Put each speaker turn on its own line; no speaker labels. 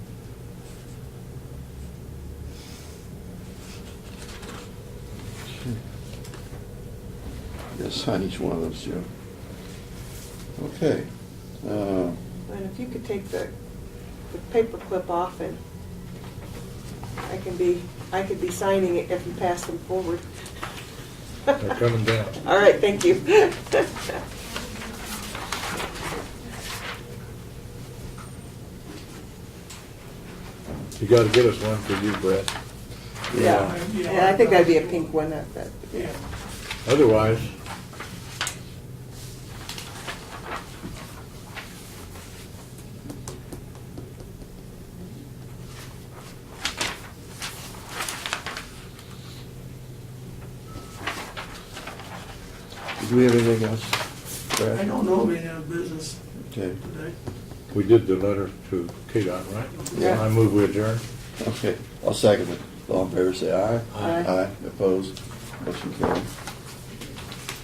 to sign each one of those, Joe. Okay. Uh,
And if you could take the, the paper clip off and I can be, I could be signing it if you pass them forward.
They're coming down.
All right, thank you.
You gotta get us one for you, Brett.
Yeah, and I think that'd be a pink one, that, that, yeah.
Otherwise,
Do we have anything else? Brad?
I don't know of any other business
Okay,
today.
we did the letter to KDOT, right?
Yeah.
I move we adjourn.
okay. I'll second it. All in favor, say aye.
Aye.
Aye, opposed, motion carried.